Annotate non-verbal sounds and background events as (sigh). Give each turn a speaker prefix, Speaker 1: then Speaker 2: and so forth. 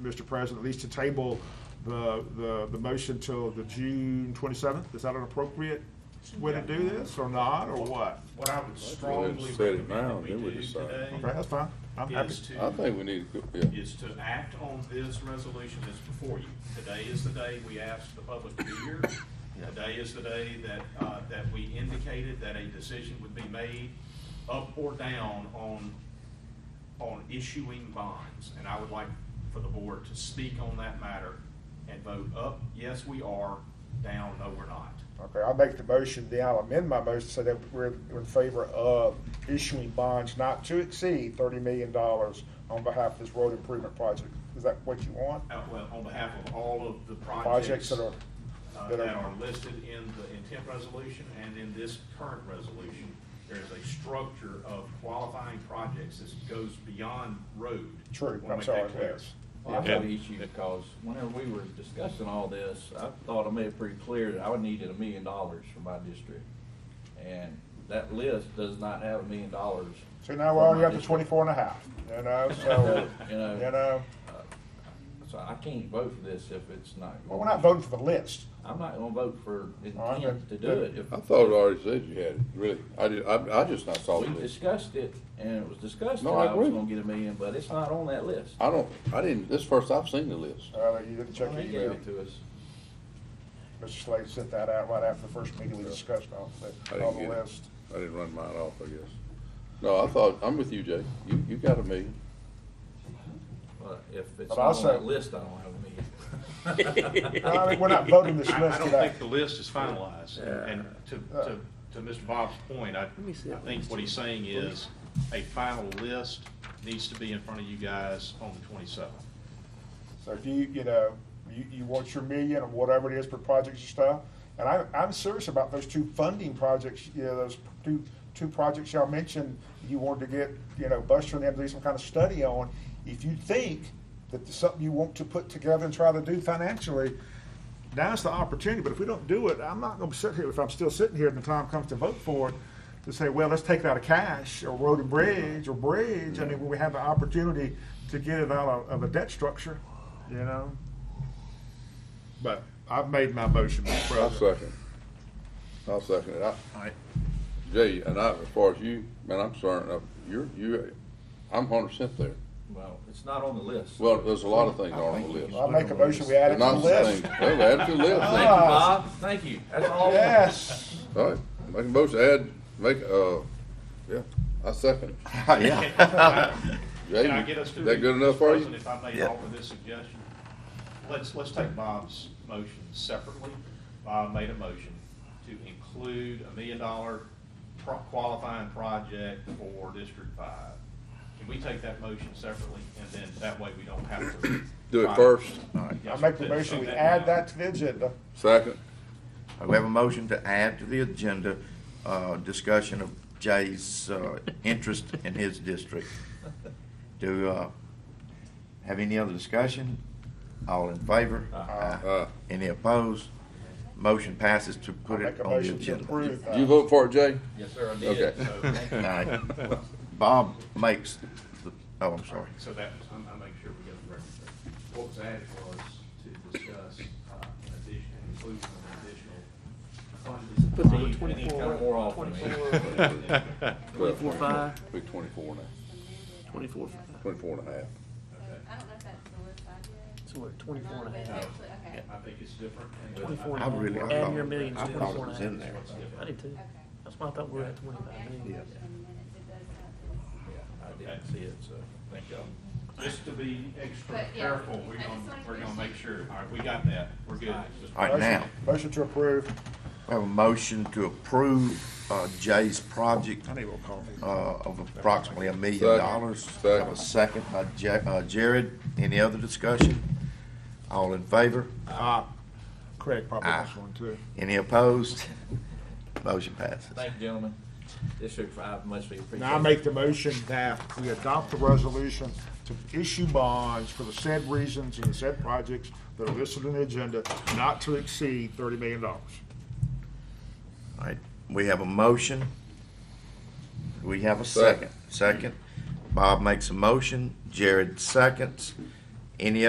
Speaker 1: Mr. President, at least to table the, the, the motion till the June twenty-seventh? Is that an appropriate way to do this, or not, or what?
Speaker 2: What I would strongly
Speaker 3: set it
Speaker 2: recommend
Speaker 3: now,
Speaker 2: that we
Speaker 3: then we
Speaker 2: do
Speaker 3: decide.
Speaker 2: today
Speaker 1: Okay, that's fine. I'm happy.
Speaker 2: is to.
Speaker 3: I think we need to, go- yeah,
Speaker 2: is to act on this resolution that's before you. Today is the day we asked the public to be here. Today is the day that, uh, that we indicated that a decision would be made up or down on, on issuing bonds. And I would like for the board to speak on that matter and vote up, yes, we are, down, no, we're not.
Speaker 4: Okay, I'll make the motion, then I'll amend my motion so that we're in favor of issuing bonds not to exceed thirty million dollars on behalf of this road improvement project. Is that what you want?
Speaker 2: Uh, well, on behalf of all of the
Speaker 4: Projects
Speaker 2: projects.
Speaker 4: that are,
Speaker 2: uh,
Speaker 4: that
Speaker 2: that
Speaker 4: are-
Speaker 2: are listed in the intent resolution and in this current resolution, there is a structure of qualifying projects that goes beyond road.
Speaker 4: true,
Speaker 2: Wanna
Speaker 4: I'm
Speaker 2: make
Speaker 4: sorry,
Speaker 2: that clear.
Speaker 4: yes.
Speaker 5: Well, I have an issue because whenever we were discussing all this, I thought I made it pretty clear that I would needed a million dollars for my district. And that list does not have a million dollars.
Speaker 4: So now we're
Speaker 5: for my
Speaker 4: already up to
Speaker 5: district.
Speaker 4: twenty-four and a half, you know, so,
Speaker 5: (laughs) You
Speaker 4: you
Speaker 5: know,
Speaker 4: know,
Speaker 5: so I can't vote for this if it's not.
Speaker 4: well, we're not voting for the list.
Speaker 5: I'm not gonna vote for
Speaker 4: All right,
Speaker 5: intent to
Speaker 4: then.
Speaker 5: do it. If
Speaker 3: I thought it already said you had it, really, I did, I, I just not saw the
Speaker 5: we
Speaker 3: list.
Speaker 5: discussed it and it was discussed that
Speaker 3: No, I
Speaker 5: I was
Speaker 3: agree.
Speaker 5: gonna get a million, but it's not on that list.
Speaker 3: I don't, I didn't, this is first I've seen the list.
Speaker 4: Uh, you didn't check
Speaker 5: Well,
Speaker 4: your
Speaker 5: They gave
Speaker 4: email.
Speaker 5: it to us.
Speaker 4: Mr. Slade sent that out right after the first meeting we discussed all
Speaker 3: I
Speaker 4: the,
Speaker 3: didn't
Speaker 4: all
Speaker 3: get
Speaker 4: the
Speaker 3: it.
Speaker 4: list.
Speaker 3: I didn't run mine off, I guess. No, I thought, I'm with you, Jay, you, you got a million.
Speaker 5: But if
Speaker 4: But
Speaker 5: it's not on
Speaker 4: also-
Speaker 5: that list, I don't have a million.
Speaker 4: I mean, we're not voting this
Speaker 2: (laughs) I, I
Speaker 4: list
Speaker 2: don't
Speaker 4: today.
Speaker 2: think the list is finalized, and to, to, to Mr. Bob's point, I, I think what he's saying is, a final list needs to be in front of you guys on the twenty-seventh.
Speaker 4: So if you, you know, you, you want your million or whatever it is per project and stuff, and I, I'm serious about those two funding projects, you know, those two, two projects y'all mentioned, you wanted to get, you know, Buster and them to do some kind of study on. If you think that there's something you want to put together and try to do financially,
Speaker 1: Now's the opportunity, but if we don't do it, I'm not gonna sit here, if I'm still sitting here and the time comes to vote for it, to say, well, let's take it out of cash, or road and bridge, or bridge, I mean, when we have the opportunity to get it out of, of a debt structure, you know? But I've made my motion, Mr.
Speaker 3: I'll
Speaker 1: President.
Speaker 3: second. I'll second it. I, Jay, and I, as far as you, man, I'm sorry, uh, you're, you, I'm hundred percent there.
Speaker 5: Well, it's not on the list.
Speaker 3: Well, there's a lot of things on the list.
Speaker 4: I'll make a motion, we add it to the
Speaker 3: And I'm
Speaker 4: list. Ah.
Speaker 3: saying, well, add to the list.
Speaker 5: Thank you, Bob. Thank you. That's all.
Speaker 4: Yes,
Speaker 3: All right, make a motion, add, make, uh, yeah, I second. (laughs) Yeah.
Speaker 6: (laughs)
Speaker 2: Can I get us to?
Speaker 3: Is that good enough for you?
Speaker 2: President, If I may offer this suggestion, let's, let's take Bob's motion separately. Bob made a motion to include a million dollar pro- qualifying project for District Five. Can we take that motion separately, and then that way we don't have to?
Speaker 3: Do it first,
Speaker 4: I make the motion, we add that to the agenda.
Speaker 3: second,
Speaker 7: (laughs) We have a motion to add to the agenda, uh, discussion of Jay's, uh, interest in his district. Do, uh, have any other discussion? All in favor?
Speaker 3: uh,
Speaker 7: Any opposed? Motion passes to
Speaker 4: I
Speaker 7: put
Speaker 4: make
Speaker 7: it
Speaker 4: a
Speaker 7: on the
Speaker 4: motion to
Speaker 7: agenda.
Speaker 4: approve that.
Speaker 3: you
Speaker 1: uh,
Speaker 3: vote for it, Jay?
Speaker 5: Yes, sir, I did.
Speaker 3: Okay.
Speaker 5: So, thank you.
Speaker 7: Aye. Bob makes, the- oh, I'm sorry.
Speaker 2: So that, I'm, I'm making sure we get the record straight. What was added was to discuss, uh, an addition, inclusion of additional funding.
Speaker 6: Put the
Speaker 2: Need- need
Speaker 5: Twenty-four, more off than me.
Speaker 2: (laughs)
Speaker 6: Twenty-four five.
Speaker 3: Big twenty-four now,
Speaker 6: Twenty-four,
Speaker 3: twenty-four and a half.
Speaker 8: I don't know if that's the list I did.
Speaker 6: so we're at twenty-four and a half.
Speaker 8: That's what- Okay.
Speaker 2: I think it's different. and-
Speaker 6: Twenty-four and a
Speaker 7: I
Speaker 6: half.
Speaker 7: really, I
Speaker 6: Add your
Speaker 7: thought,
Speaker 6: millions
Speaker 7: I
Speaker 6: to
Speaker 7: thought it
Speaker 6: twenty-four
Speaker 7: was
Speaker 6: and
Speaker 7: in
Speaker 6: a
Speaker 7: there.
Speaker 6: half. I did too. That's why I thought we were at
Speaker 8: Okay,
Speaker 6: twenty-five
Speaker 8: I can
Speaker 6: million.
Speaker 8: look in minutes, it does have this.
Speaker 5: I didn't see it, so thank y'all.
Speaker 2: Just to be extra
Speaker 8: But, yeah,
Speaker 2: careful, we're
Speaker 8: I just
Speaker 2: gonna,
Speaker 8: wanted
Speaker 2: we're
Speaker 8: to
Speaker 2: gonna
Speaker 8: make
Speaker 2: make sure, all right, we got that, we're good. Just-
Speaker 7: All right,
Speaker 4: Motion-
Speaker 7: now,
Speaker 4: Motion to approve.
Speaker 7: we have a motion to approve, uh, Jay's project uh, of approximately a million
Speaker 3: Second.
Speaker 7: dollars.
Speaker 3: Second.
Speaker 7: Have a second by Ja- uh, Jared. Any other discussion? All in favor?
Speaker 1: Craig probably
Speaker 7: Aye.
Speaker 3: Ah.
Speaker 1: wants one too.
Speaker 7: Any opposed? Motion passes.
Speaker 5: Thank you, gentlemen. District five must be appreciated.
Speaker 1: Now, I make the motion that we adopt the resolution to issue bonds for the said reasons and the said projects that are listed in the agenda, not to exceed thirty million dollars.
Speaker 7: All right, we have a motion. We have a second. Second, Bob makes a motion, Jared seconds. Any